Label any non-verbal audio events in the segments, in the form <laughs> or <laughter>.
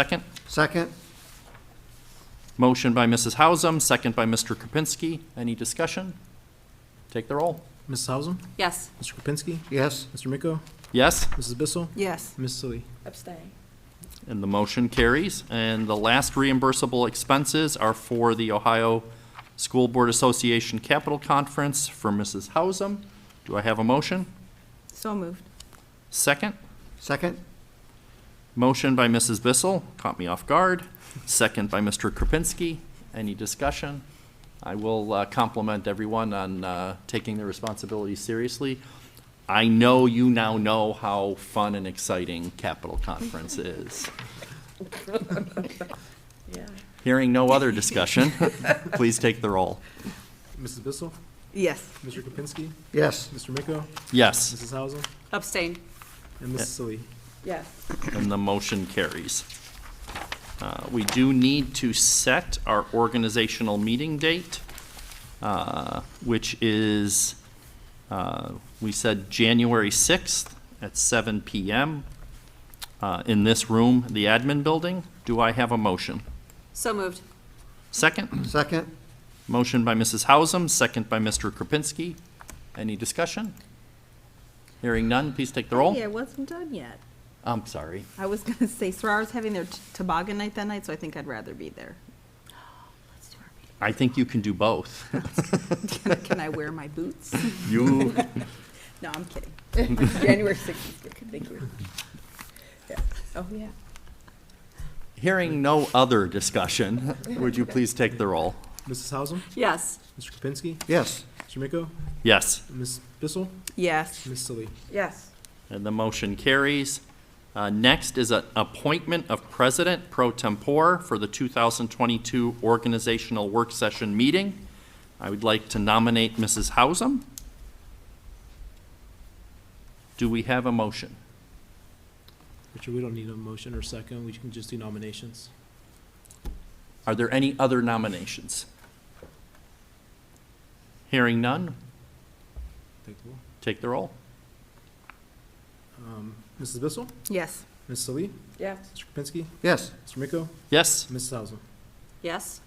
Second, Second? motion by Mrs. Hausum, second by Mr. Kropinski. Any discussion? Take the roll. Mrs. Hausum, Yes. Mr. Kropinski, Yes. Mr. Miko, Yes, Mrs. Bissell, Yes. Ms. Sully. Abstain. and the motion carries. And the last reimbursable expenses are for the Ohio School Board Association Capital Conference for Mrs. Hausum. Do I have a motion? So moved. Second, Second? motion by Mrs. Bissell, caught me off guard, second by Mr. Kropinski. Any discussion? I will uh, compliment everyone on uh, taking their responsibilities seriously. I know you now know how fun and exciting Capitol Conference is. Hearing no other discussion, <laughs> please take the roll. Mrs. Bissell, Yes. Mr. Kropinski, Yes. Mr. Miko, Yes. Mrs. Hausum, Abstain. and Yeah. Ms. Sully. Yes. And the motion carries. Uh, We do need to set our organizational meeting date, uh, which is, uh, we said January 6th at seven PM uh, in this room, the admin building. Do I have a motion? So moved. Second, Second? motion by Mrs. Hausum, second by Mr. Kropinski. Any discussion? Hearing none, please take the roll. Yeah, it wasn't done yet. I'm sorry. I was gonna <laughs> say, Sarar's having their t- toboggan night that night, so I think I'd rather be there. <gasps> Let's do our I think you can do both. meeting. Can I- <laughs> Can I wear my boots? <laughs> You, <laughs> No, I'm kidding. <laughs> January 6th is good, thank you. Yeah. Oh, yeah. Hearing no other discussion, would you please take the roll? Mrs. Hausum, Yes. Mr. Kropinski, Yes. Mr. Miko, Yes, Ms. Bissell, Yes. Ms. Sully. Yes. and the motion carries. Uh, Next is an appointment of president pro tempore for the 2022 organizational work session meeting. I would like to nominate Mrs. Hausum. Do we have a motion? Richard, we don't need a motion or second, we can just do nominations. Are there any other nominations? Hearing none, Take the roll. take the roll. Um, Mrs. Bissell, Yes. Ms. Sully, Yes. Mr. Kropinski, Yes. Mr. Miko, Yes, Mrs. Hausum. Yes.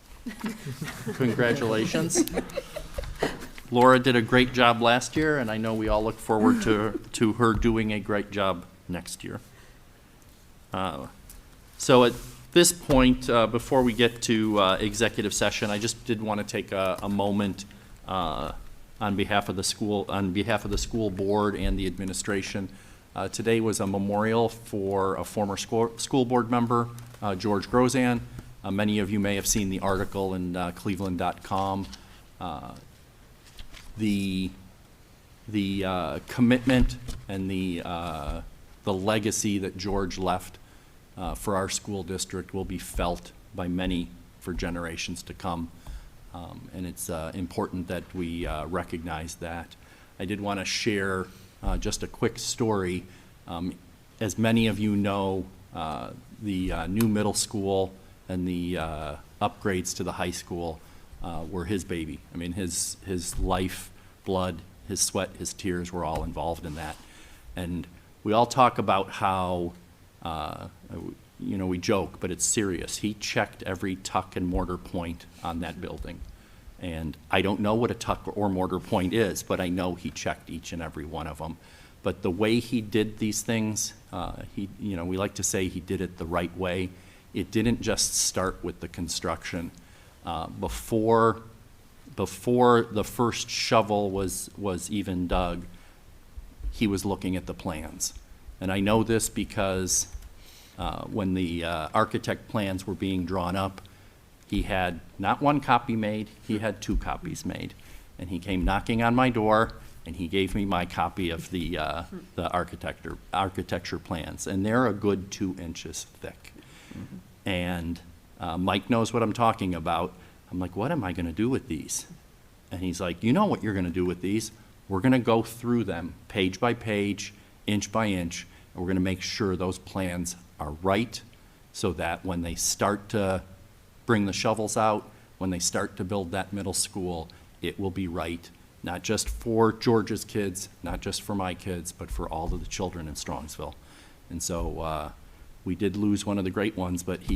Congratulations. Laura did a great job last year, and I know we all look forward to, to her doing a great job next year. Uh, So at this point, uh, before we get to uh, executive session, I just did want to take a, a moment uh, on behalf of the school, on behalf of the school board and the administration. Uh, Today was a memorial for a former school, school board member, uh, George Grozan. Uh, Many of you may have seen the article in uh, cleveland.com. Uh, The, the uh, commitment and the, uh, the legacy that George left uh, for our school district will be felt by many for generations to come. Um, And it's uh, important that we uh, recognize that. I did want to share uh, just a quick story. Um, As many of you know, uh, the uh, new middle school and the uh, upgrades to the high school uh, were his baby. I mean, his, his life, blood, his sweat, his tears were all involved in that. And we all talk about how, uh, you know, we joke, but it's serious. He checked every tuck and mortar point on that building. And I don't know what a tuck or mortar point is, but I know he checked each and every one of them. But the way he did these things, uh, he, you know, we like to say he did it the right way. It didn't just start with the construction. Uh, Before, before the first shovel was, was even dug, he was looking at the plans. And I know this because uh, when the uh, architect plans were being drawn up, he had not one copy made, he had two copies made. And he came knocking on my door, and he gave me my copy of the, uh, the architecture, architecture plans. And they're a good two inches thick and uh, Mike knows what I'm talking about. I'm like, what am I going to do with these? And he's like, you know what you're going to do with these. We're going to go through them page by page, inch by inch, and we're going to make sure those plans are right so that when they start to bring the shovels out, when they start to build that middle school, it will be right, not just for George's kids, not just for my kids, but for all of the children in Strongsville. And so uh, we did lose one of the great ones, but he